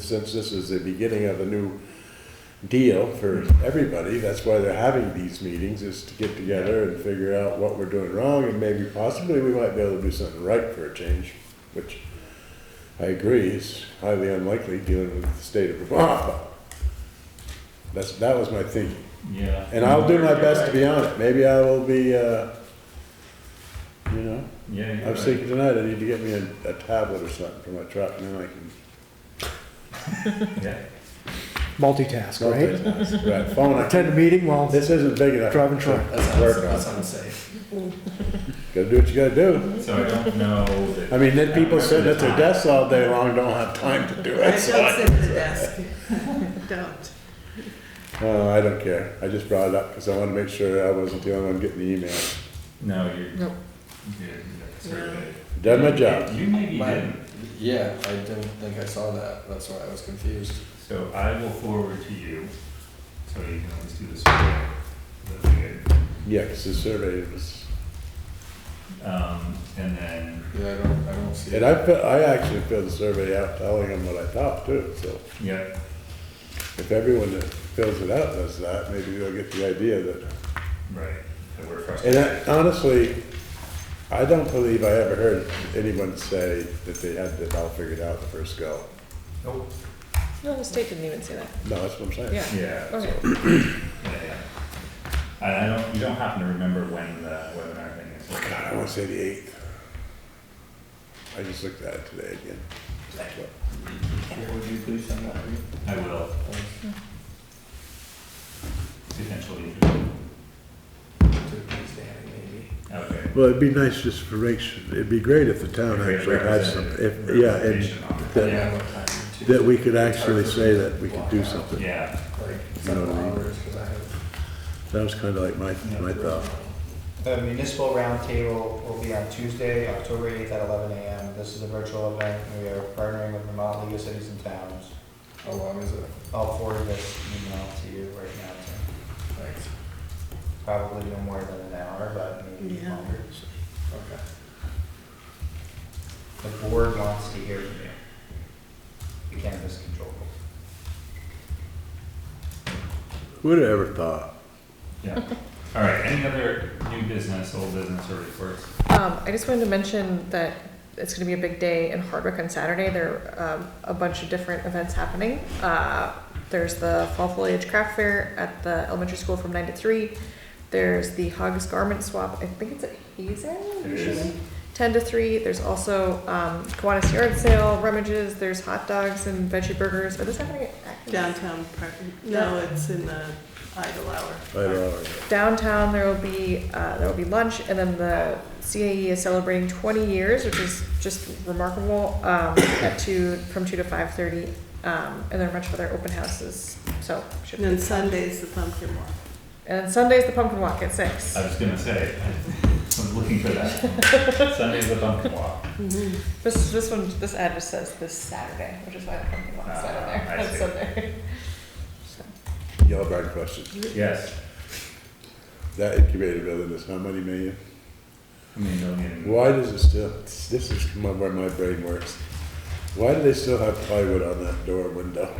Since this is the beginning of a new deal for everybody, that's why they're having these meetings, is to get together and figure out what we're doing wrong, and maybe possibly we might be able to do something right for a change, which I agree is highly unlikely dealing with the state of Vermont. but That's, that was my thinking. Yeah. And I'll do my best to be on it. Maybe I will be, uh, you know, Yeah, I was you're right. thinking tonight, I need to get me a, a tablet or something for my truck, and then I can Yeah. multitask, right? multitask. Right, phone, I Attend a meeting while This isn't big enough. driving truck. to Work on. unsafe. Gotta do what you gotta do. So I don't know that. I mean, then people sitting at their desks all day long don't have time to do I it, don't so. I- sit at the desk. Don't. Oh, I don't care. I just brought it up because I wanted to make sure I wasn't the only one getting the email. No, you're. Nope. you're- you're surveyed. Done my job. You maybe Mine. didn't, Yeah, I didn't think I saw that. That's why I was confused. so I will forward to you, so you can always do the survey. That'd be good. Yeah, 'cause the survey was, Um, and then, Yeah, I don't, I don't see and it. I, fi- I actually filled the survey out telling them what I thought too, so. yeah, If everyone that fills it out does that, maybe they'll get the idea that right, that we're And frustrated. I- honestly, I don't believe I ever heard anyone say that they had it all figured out the first go. Oh, No, the state didn't even say that. No, that's what I'm saying. Yeah. yeah, so, Okay. yeah, yeah. And I don't, you don't happen to remember when the webinar thing is. Oh, God, I want to say the eighth. I just looked at it today again. Yeah, Would you please send that to me? I will, Thanks. potentially, To Tuesday, maybe. okay. Well, it'd be nice just for Rich, it'd be great if the town Great actually had some, if, representative yeah, and representation on it. I that- don't know what time Tuesday- that we could actually It's hard say for me that to we could block do out, something. Yeah, Like You know what seven I mean? hours, cause I have. That was kind of like my, my thought. The municipal roundtable will be on Tuesday, October 8th at 11 a.m. This is a virtual event, and we are partnering with Vermont League of Cities and Towns. How long is it? I'll forward this email to you right now, Tim. Thanks. Probably no more than an hour, but maybe Yeah. longer. Okay. The board wants to hear from you. The cannabis control. board. Who Who'd have ever thought? yeah. All right, any other new business, old business or reports? Um, I just wanted to mention that it's gonna be a big day in Hardwick on Saturday. There are, um, a bunch of different events happening. Uh, there's the Fall Foliage Craft Fair at the elementary school from nine to three. There's the Hogs Garment Swap, I think it's at Hazen It is. usually, ten to three. There's also, um, Kiwanis Yard Sale, Rummages, there's hot dogs and veggie burgers. Are this happening at Atkins? Downtown park, no, it's in the idle hour. I don't know. downtown there will be uh, there will be lunch and then the CAE is celebrating 20 years which is just remarkable um, at two from 2 to 5:30 um, and there are a bunch of other open houses so should And then Sunday's the pumpkin walk. and then Sunday's the pumpkin walk at 6 I was gonna say, I was looking for that. Sunday's the pumpkin walk. this this one this ad just says this Saturday which is why the pumpkin walk is not on there Ah, I That's see. on there. so, Yellow Barn question. Yes, That incubator building is how many million? I mean, million. Why does it still, this is my- where my brain works. Why do they still have plywood on that door window?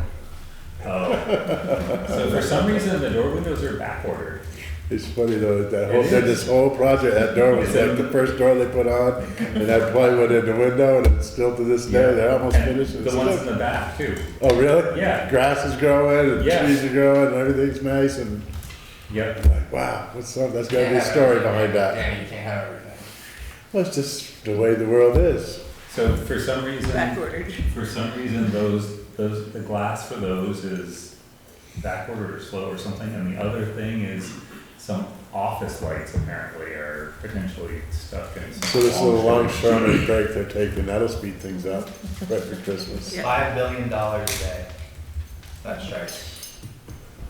Oh. So for some reason, the door windows are backordered. It's funny though, that whole, It that is. this whole project, that door was like the first door they put on, and that plywood in the window, and it's still to this day, they're almost And finished. The It's ones in still- the back too. Oh, really? Yeah. Grass is growing, and Yeah. trees are growing, and everything's nice, and Yep. like, wow, what's up, that's gotta be a story behind that. Yeah, you can't have everything. Well, it's just the way the world is. So for some reason, Backordered. for some reason, those, those, the glass for those is backordered or slow or something. And the other thing is some office lights apparently are potentially stuck in some. So this little long- longshoreman break they're taking, that'll speed things up right for Christmas. Yeah. $5 billion a day. That's right.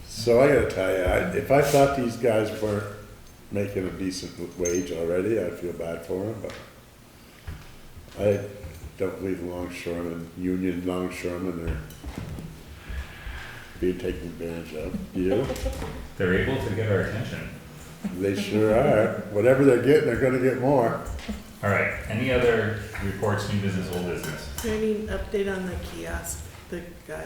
So I gotta tell you, I, if I thought these guys weren't making a decent wage already, I'd feel bad for them, but I don't believe longshoremen, union longshoremen are being taken advantage of, you know? They're able to get our attention. They sure are. Whatever they're getting, they're gonna get more. All right, any other reports, new business, old business? Is there any update on the kiosk? the guy